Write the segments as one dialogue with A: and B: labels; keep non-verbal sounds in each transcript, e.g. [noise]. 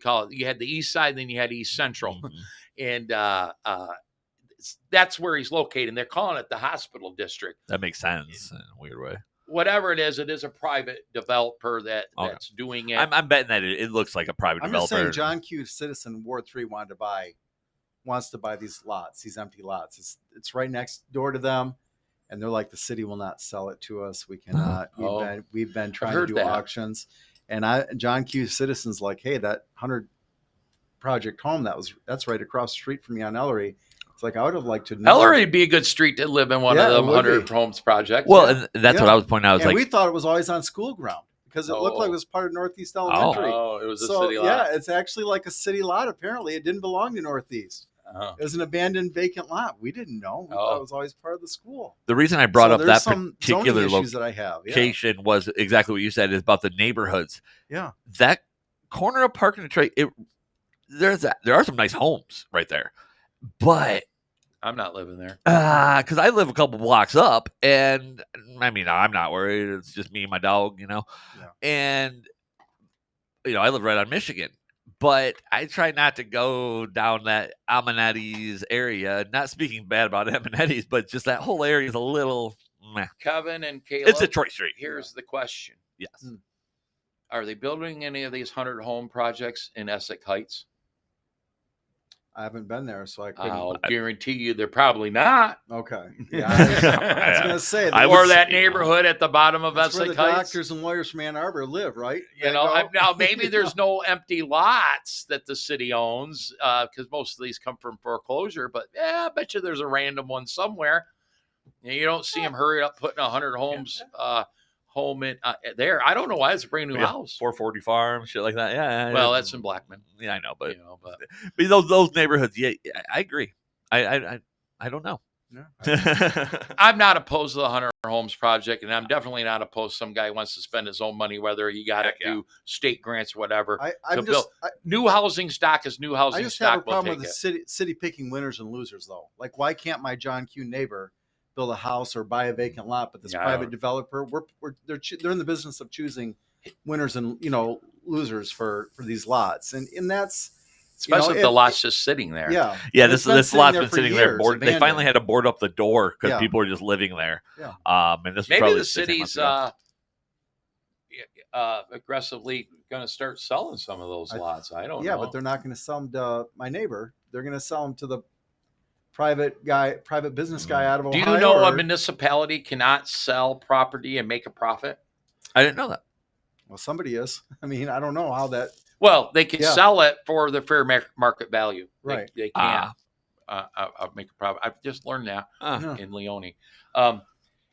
A: call it. You had the East Side, then you had East Central,
B: Mm-hmm.
C: Mhm.
A: and uh, uh, it's- that's where he's located. And they're calling it the hospital district.
C: [laughs] That makes sense in a weird way.
A: Whatever it is, it is a private developer that
B: Oh,
C: Okay.
A: that's doing it.
C: I'm, I'm betting that it, it looks like a private
B: I'm just
C: developer.
B: saying, John Q. Citizen Ward Three wanted to buy, wants to buy these lots, these empty lots. It's it's right next door to them, and they're like, the city will not sell it to us. We cannot. We've
A: [gasps] Oh.
B: been we've been trying to
A: heard
B: do
A: that.
B: auctions, and I John Q. Citizen's like, hey, that hundred project home that was that's right across the street from me on Ellery. It's like I would have liked to know.
A: Ellery would be a good street to live in one
B: Yeah, it
A: of the
B: would
A: 100
B: be.
A: homes projects.
C: well, and that's what
B: Yeah.
C: I was pointing out. I was
B: and
C: like,
B: we thought it was always on school ground because it looked like
A: Oh.
B: it was part of Northeast Elementary.
A: oh, it was a
B: so
A: city lot.
B: yeah, it's actually like a city lot. Apparently, it didn't belong to Northeast.
A: Oh.
B: It was an abandoned vacant lot. We didn't know. We thought
A: Oh.
B: it was always part of the school.
C: the reason I brought
B: So
C: up
B: there's
C: that
B: some zoning
C: particular
B: issues that I have. Yeah.
C: location was exactly what you said is about the neighborhoods.
B: Yeah.
C: That corner of Park and Detroit, it there's a, there are some nice homes right there, but
A: I'm not living there.
C: because Uh, I live a couple blocks up, and I mean, I'm not worried. It's just me and my dog, you know.
B: Yeah.
C: And you know, I live right on Michigan, but I try not to go down that Amanetti's area. Not speaking bad about [laughs] Amanetti's, but just that whole area is a little. Meh.
A: Kevin and Caleb.
C: It's Detroit Street.
A: Here's the question.
C: Yes.
B: Mm.
A: Are they building any of these 100 home projects in Essex Heights?
B: I haven't been there, so I couldn't.
A: I'll guarantee you they're probably
B: [laughs]
A: not.
B: Okay. Yeah. I was, I was gonna say
C: I
B: that's-
A: or
C: would
A: that
C: say-
A: neighborhood at the bottom of
B: that's where
A: Essex
B: the
A: Heights.
B: doctors and lawyers from Ann Arbor live, right?
A: You know, I,
C: [laughs]
A: now maybe there's no empty lots that the city owns because most of these come from foreclosure. But yeah, I bet you there's a random one somewhere. And you don't see them hurry up putting a hundred homes uh, home in uh, there. I don't know why it's a brand new
C: Yeah,
A: house.
C: 440 Farm, shit like that. Yeah.
A: Well,
C: yeah.
A: that's in Blackman,
C: Yeah, I know, but,
A: you know. But
C: [laughs] but those those neighborhoods. Yeah, I- I agree. I I I, I don't know.
B: no.
C: [laughs]
A: I'm not opposed to the Hunter Homes project, and I'm definitely not opposed. Some guy wants to spend his own money, whether he got it
C: Heck yeah.
A: through state grants, whatever.
B: I,
A: So
B: I'm
A: Bill,
B: just, I,
A: new housing stock is new housing
B: I just
A: stock.
B: have a
A: we'll
B: problem
A: take
B: with the
A: it.
B: city city picking winners and losers though. Like, why can't my John Q neighbor build a house or buy a vacant lot? But this
A: Yeah, I
B: private
A: don't-
B: developer, we're, we're they're choo- they're in the business of choosing winners and you know losers for for these lots, and and that's you know,
A: especially if the
B: it-
A: lot's just sitting there.
B: yeah.
C: yeah,
B: And
C: this
B: it's been
C: this
B: sitting
C: lot's
B: there
C: been
B: for
C: sitting there.
B: years,
C: Board, they finally
B: abandoned.
C: had to board up the door because
B: Yeah.
C: people were just living there.
B: Yeah.
C: Um, and this was
A: maybe
C: probably
A: the
C: six, eight months
A: city's
C: ago.
A: uh, y- uh, aggressively going to start selling some of those
B: I-
A: lots. I don't
B: yeah,
A: know.
B: but they're not going to sell them to my neighbor. They're going to sell them to the private guy, private business guy out of
A: Mm. Do you
B: Ohio.
A: know a
B: or-
A: municipality cannot sell property and make a profit?
B: uh,
C: I didn't know
B: [laughs]
C: that.
B: well, somebody is. [laughs] I mean, I don't know how that.
A: Well, they can
B: Yeah.
A: sell it for the fair mar- market value. They-
B: Right.
A: They, can't
C: Ah.
A: uh, uh, uh, make a profit. I've just learned that
C: Uh,
B: no.
A: in Leone. Um,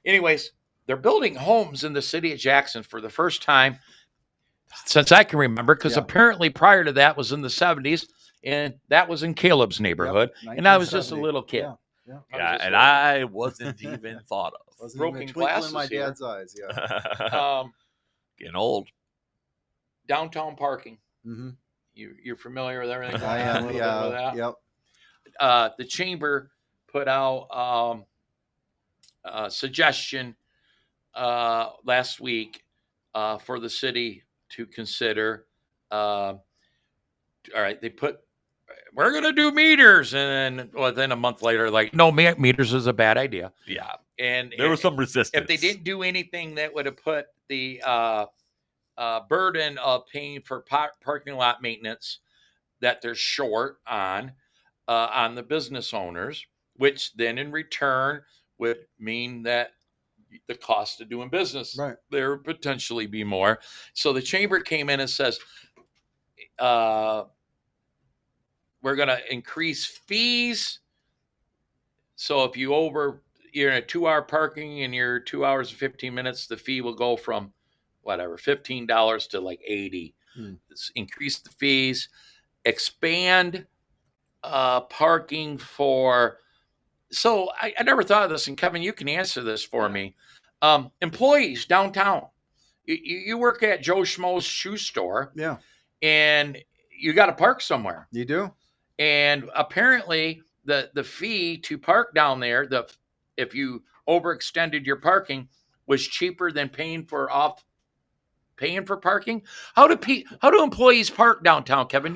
A: anyways, they're building homes in the city of Jackson for the first time since I can remember, because
B: Yeah.
A: apparently prior to that was in the 70s, and that was in Caleb's neighborhood.
B: Yep,
A: and I was just a
B: 1970.
A: little kid.
B: Yeah, yeah.
A: I was
C: yeah,
A: just
C: and
A: like-
C: I
B: [laughs]
C: wasn't even thought [laughs] of.
B: Wasn't even a
A: Broken
B: twinkle
A: glasses
B: in my
A: here.
B: dad's eyes. Yeah. Uh, [laughs]
A: um,
C: Getting old.
A: downtown parking.
B: hmm
A: You, you're familiar with everything.
B: I
A: going on [laughs] a
B: am.
A: little bit with
B: Yeah.
A: that?
B: Yep.
A: Uh, the chamber put out um, a suggestion uh, last week uh, for the city to consider. um all right, they put we're gonna do meters, and then well, then a month later, like no, me- meters is a bad idea.
C: Yeah,
A: And
C: there was some resistance.
A: if they didn't do anything that would have put the uh, uh, burden of paying for par- parking lot maintenance that they're short on uh, on the business owners, which then in return would mean that the cost of doing business
B: Right.
A: there would potentially be more. So the chamber came in and says, uh, we're going to increase fees. So if you over, you're in a two hour parking and you're two hours and 15 minutes, the fee will go from whatever, $15 to like 80.
B: Hmm.
A: It's increase the fees, expand uh, parking for. So I, I never thought of this. And Kevin, you can answer this for me. Um, employees downtown, you, you you work at Joe Schmo's shoe store
B: Yeah.
A: and you got to park somewhere
B: You do.
A: and apparently the the fee to park down there the if you overextended your parking was cheaper than paying for off paying for parking how do pe- how do employees park downtown kevin